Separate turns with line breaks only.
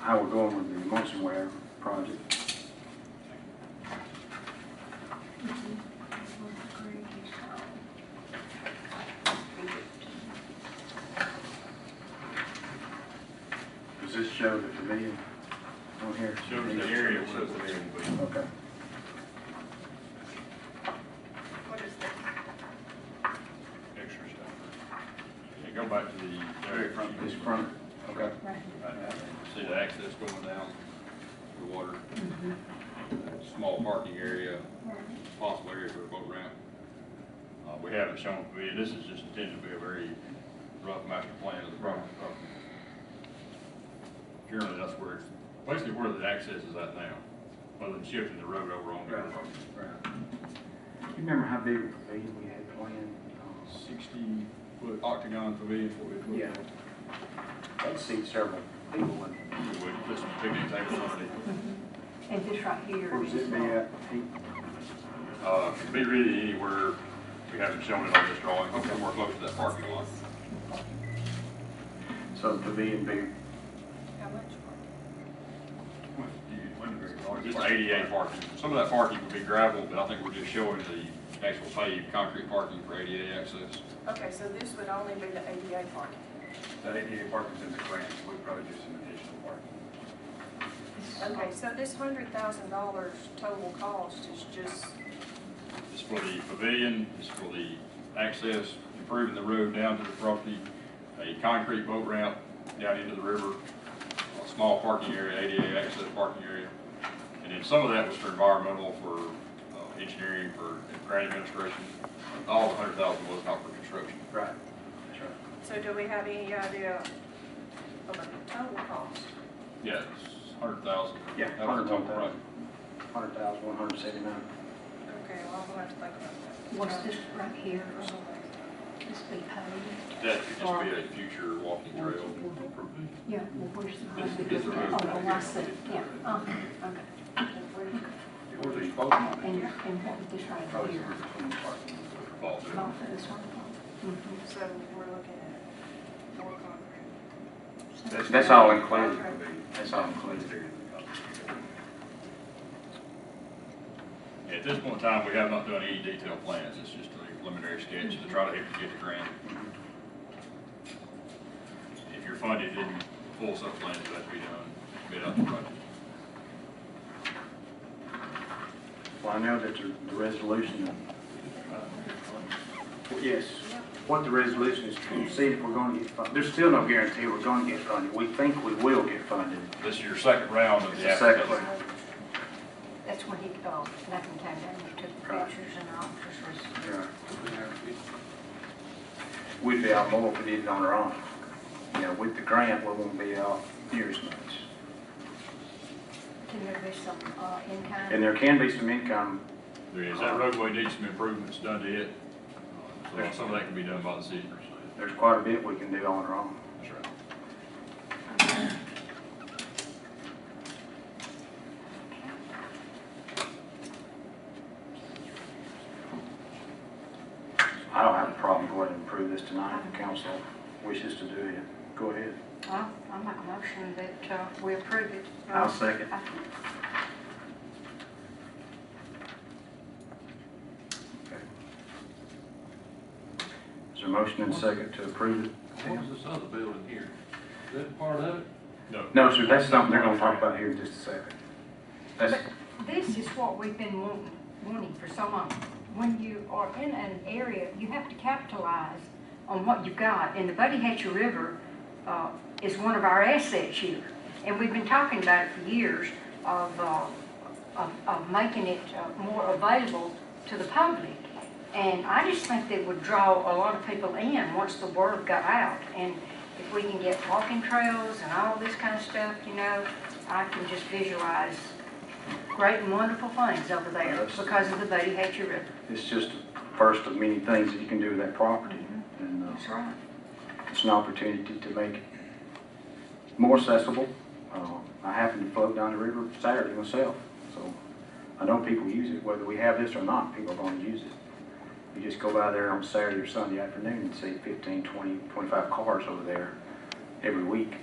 how we're going with the emulsion ware project. Does this show the pavilion on here?
Shows the area where the pavilion will be.
Okay.
What is that?
extra stuff. Yeah, go back to the very front.
This front, okay.
Right now, See the access going down, the water. Uh, Small parking area, possible area for a boat ramp. Uh, we haven't shown, we- this is just intended to be a very rough master plan of the property. Currently, that's where, it's basically where the access is at now, other than shifting the road over on the other property.
You remember how big a pavilion we had planned? Um,
Sixty foot octagon pavilion for it.
Yeah. That seats several people in.
We put some picnic tables underneath.
And this right here.
Where's it be at? Pete?
Uh, could be really anywhere, we haven't shown it on this drawing, but somewhere close to that parking lot.
So the pavilion be,
How much?
Just ADA parking, some of that parking would be gravel, but I think we're just showing the actual paved concrete parking for ADA access.
Okay, so this would only be the ADA parking.
That ADA parking's in the grant, so we probably do some additional parking.
Okay, so this hundred thousand dollars total cost is just,
It's for the pavilion, it's for the access, improving the road down to the property, a concrete boat ramp down into the river, a small parking area, ADA access parking area. And then some of that was for environmental, for uh, engineering, for grant administration. All the hundred thousand was not for construction.
right, that's right.
so do we have any idea of the total cost?
Yeah, it's hundred thousand.
Yeah,
That was the total
100,000.
project.
Hundred thousand, one hundred seventy-nine.
Okay, well, I'm gonna have to think about that.
What's this right here,
Okay,
this be paved?
That could just be a future walking trail.
Yeah, well, where's the
This-
road?
this is the road
Oh,
right
well, I
here.
see, yeah, uh, okay.
Where's the boat ramp?
And, and what was this right
Probably
here?
somewhere between the parking.
Fall through.
Both of this one?
Mm-hmm.
Mhm.
So we're looking at more concrete.
Mm-hmm.
That's all
included.
That's all included.
At this point in time, we have not done any detailed plans, it's just a preliminary sketch to try to help you get the grant. If you're funded, then full sub plans have to be done, bid out the project.
Well, I know that the the resolution. uh, Yes, what the resolution is to see if we're gonna get funded. There's still no guarantee we're gonna get funded. We think we will get funded.
This is your second round of
It's
the
the second
application.
one.
That's when he, oh, that one came down, he took
Right.
pictures and all, this was,
Yeah. We'd be out more if we did it on our own. You know, with the grant, we won't be out near as much.
can there be some, uh, in kind?
And there can be some income,
There is, that roadway needs some improvements done to it, Uh, so some of that can be done by the city.
there's quite a bit we can do on our own.
That's right.
I don't have a problem going and approve this tonight if the council wishes to do it. Go ahead.
Well, I make a motion that, uh, we approve it.
I'll second.
I-
Is there a motion and second to approve it?
What's this other building here? Is that part of it?
No,
No, sir, that's something they're gonna talk about here in just a second. That's,
But this is what we've been wanting, wanting for so long. When you are in an area, you have to capitalize on what you've got. And the Buddy Hatcher River uh, is one of our assets here. And we've been talking about it for years of, uh, of, of making it uh, more available to the public. And I just think that would draw a lot of people in once the word got out. And if we can get walking trails and all this kind of stuff, you know, I can just visualize great and wonderful things over there
Yes.
because of the Buddy Hatcher River.
it's just the first of many things that you can do with that property. And, uh,
right.
It's an opportunity to make it more accessible. Uh, I happen to float down the river Saturday myself, so I know people use it, whether we have this or not, people are gonna use it. You just go by there on Saturday or Sunday afternoon and see 15, 20, 25 cars over there every week.